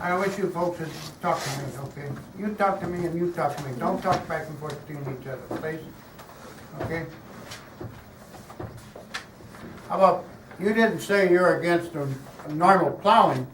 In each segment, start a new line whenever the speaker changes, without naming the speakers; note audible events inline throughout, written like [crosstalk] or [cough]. I wish you folks would talk to me, okay? You talk to me and you talk to me. Don't talk back and forth between each other, please, okay? How about, you didn't say you're against a a normal plowing,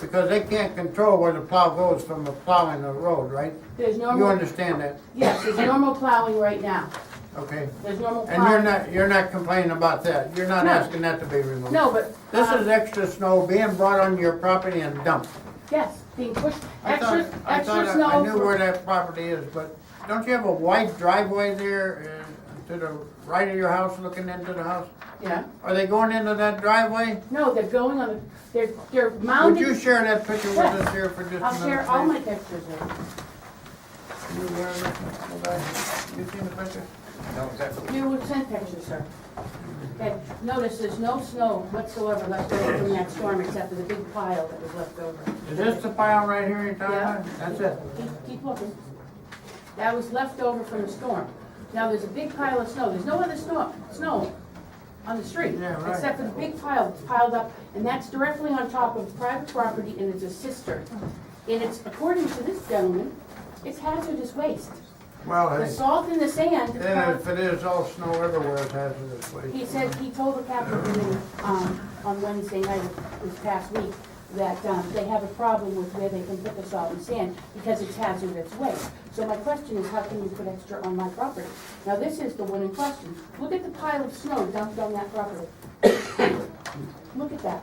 because they can't control where the plow goes from the plowing the road, right?
There's
You
normal,
understand that,
yes, there's normal plowing right now.
okay?
There's normal plowing.
And you're not, you're not complaining about that. You're not
No.
asking that to be removed.
No, but,
This is
uh,
extra snow being brought on your property and dumped.
yes, being pushed,
I thought-
extra,
I thought
extra
I-
snow.
I knew
for-
where that property is, but don't you have a wide driveway there uh, to the right of your house, looking into the house?
Yeah,
Are they going into that driveway?
no, they're going on, the- they're, they're
Would you
mounding.
share that picture with
Yes.
us here for just a minute?
I'll share all my pictures with you.
please? You were looking- well, I- You seen the picture?
You would send pictures, sir. Okay, notice there's no snow whatsoever left over from that storm except for the big pile that was left over.
Is this the pile right here you're talking
Yeah.
about? That's it?
Keep, keep looking. That was left over from the storm. Now, there's a big pile of snow, there's no other snow, snow on the street.
Yeah, right.
Except for the big pile that's piled up, and that's directly on top of private property and it's a cistern. And it's, according to this gentleman, it's hazardous waste.
Well,
The
hey,
salt and the sand. is
then
part-
if it is, all snow everywhere is hazardous waste.
he said, he told the captain committee, um, on Wednesday night this past week, that, um, they have a problem with where they can put the salt and sand because it's hazardous waste. So my question is, how can you put extra on my property? Now, this is the one in question. Look at the pile of snow dumped on that property. [coughs] Look at that.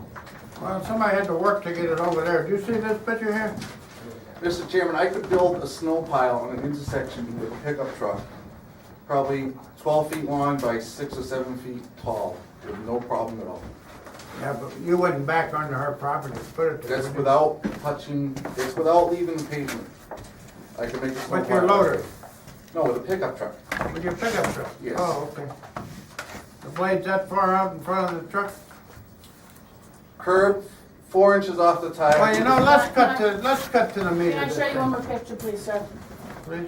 Well, somebody had to work to get it over there. Do you see this picture here?
Mr. Chairman, I could build a snow pile on an intersection with a pickup truck, probably twelve feet long by six or seven feet tall, with no problem at all.
Yeah, but you wouldn't back onto her property, to put it there.
That's
would you?
without touching, that's without leaving the pavement. I could make a snow pile.
With your loader,
No, with a pickup truck.
with your pickup truck?
Yes.
Oh, okay. The blade's that far out in front of the truck?
Curb, four inches off the tire.
Well, you know, let's cut to, let's cut to the meat
Can I
of
show
this
you one
thing,
more picture, please, sir?
please.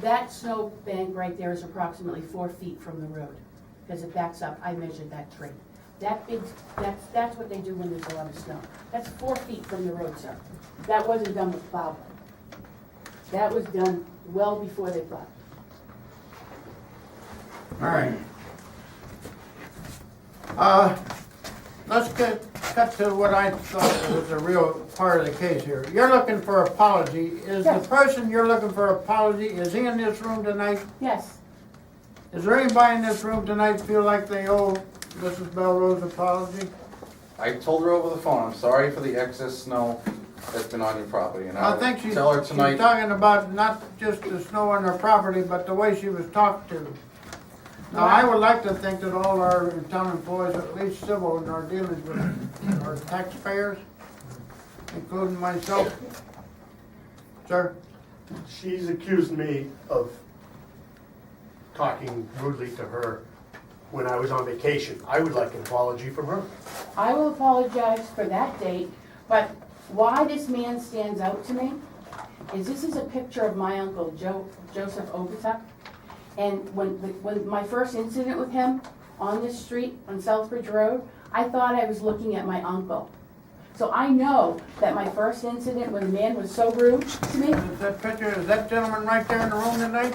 That snow bank right there is approximately four feet from the road, because it backs up, I measured that tree. That big, that's, that's what they do when there's a lot of snow. That's four feet from the road, sir. That wasn't done with plowing. That was done well before they plowed.
All right. Uh, let's get, cut to what I thought was the real part of the case here. You're looking for apology. Is the
Yes.
person you're looking for apology, is he in this room tonight?
Yes,
Is there anybody in this room tonight feel like they owe Mrs. Melrose apology?
I told her over the phone, I'm sorry for the excess snow that's been on your property, and
I
I'll
think she's, she's
tell her tonight.
talking about not just the snow on her property, but the way she was talked to. Now, I would like to think that all our town employees, at least civil, and our dealings with our taxpayers, including myself. Sir,
She's accused me of talking rudely to her when I was on vacation. I would like an apology from her.
I will apologize for that date, but why this man stands out to me is this is a picture of my uncle Jo- Joseph Ogutuck. And when, when my first incident with him on this street on Southbridge Road, I thought I was looking at my uncle. So I know that my first incident when the man was so rude to me,
is that picture, is that gentleman right there in the room tonight?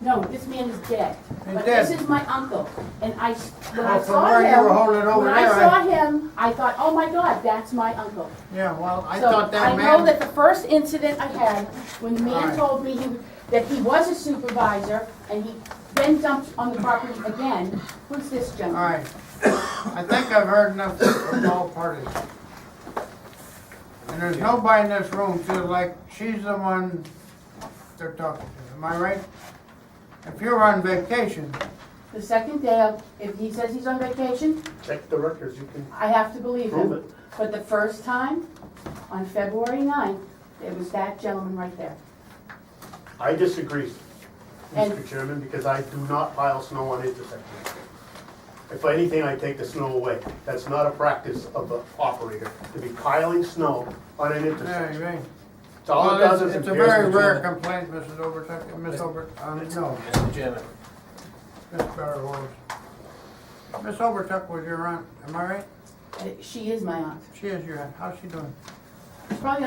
no, this man is dead.
He's
But
dead.
this is my uncle, and I, s- when
Well,
I
from
saw
where
him.
you were holding it over
When I
there, I-
saw him, I thought, oh my God, that's my uncle.
Yeah, well, I
So,
thought that
I know
man,
that the first incident I had, when the man
Alright.
told me he- that he was a supervisor, and he then dumped on the property again, was this
all
gentleman.
right. I think I've heard enough from all parties. And there's nobody in this room feels like she's the one they're talking to, am I right? If you're on vacation,
The second day, of- if he says he's on vacation,
Check the records, you can
I have to believe
prove
him.
it.
But the first time, on February 9th, it was that gentleman right there.
I disagree,
And-
Mr. Chairman, because I do not pile snow on intersections. If anything, I take the snow away. That's not a practice of the operator, to be piling snow on an
yeah,
intersection.
you're right.
It's all it does
Well,
is
It's a
impairs
very
the
rare
judgment.
complaint, Mrs. Overtuck, Miss Over, um, no,
Mr. Chairman,
Miss Barrows. Miss Overtuck was your aunt, am I right?
Uh, She is my aunt.
She is your aunt, how's she doing?
She's probably